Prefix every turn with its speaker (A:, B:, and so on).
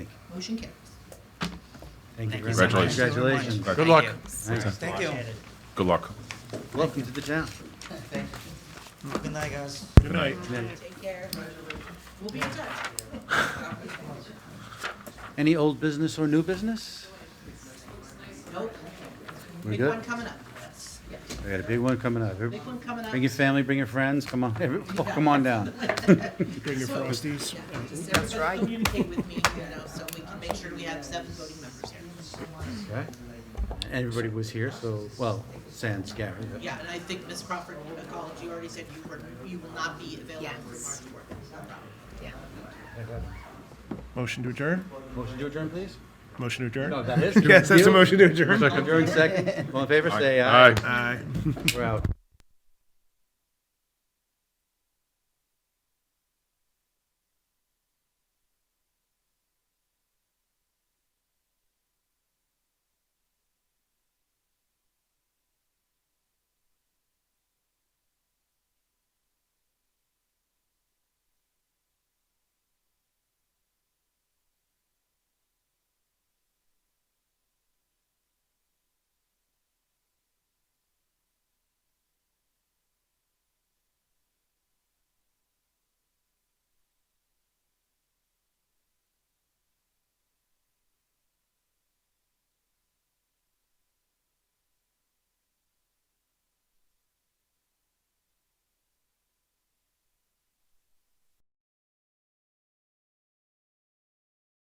A: Motion carries.
B: Thank you very much.
C: Congratulations.
B: Congratulations.
C: Good luck.
B: Thanks.
D: Thank you.
C: Good luck.
B: Welcome to the town.
D: Thank you. Good night, guys.
C: Good night.
A: Take care. We'll be in touch.
B: Any old business or new business?
A: Nope.
B: We
A: Big
B: good?
A: one coming up. Yeah,
B: We got a big one coming up.
A: Big one coming up.
B: Bring your family, bring your friends, come on, every- come on down.
E: Bring your Frosties.
A: Yeah, just everybody communicate with me, you know, so we can make sure we have seven voting members.
B: Okay. Everybody was here, so, well, sans Gary. but-
A: Yeah, and I think Ms. Crawford, uh, college, you already said you were, you will not be available
F: Yes.
A: for March work.
E: Motion to adjourn?
B: Motion to adjourn, please?
E: Motion to adjourn?
B: No, that is.
E: Yes, that's a motion to adjourn.
B: Adjourn second. All in favor, say aye.
C: Aye.
E: Aye.
B: We're out.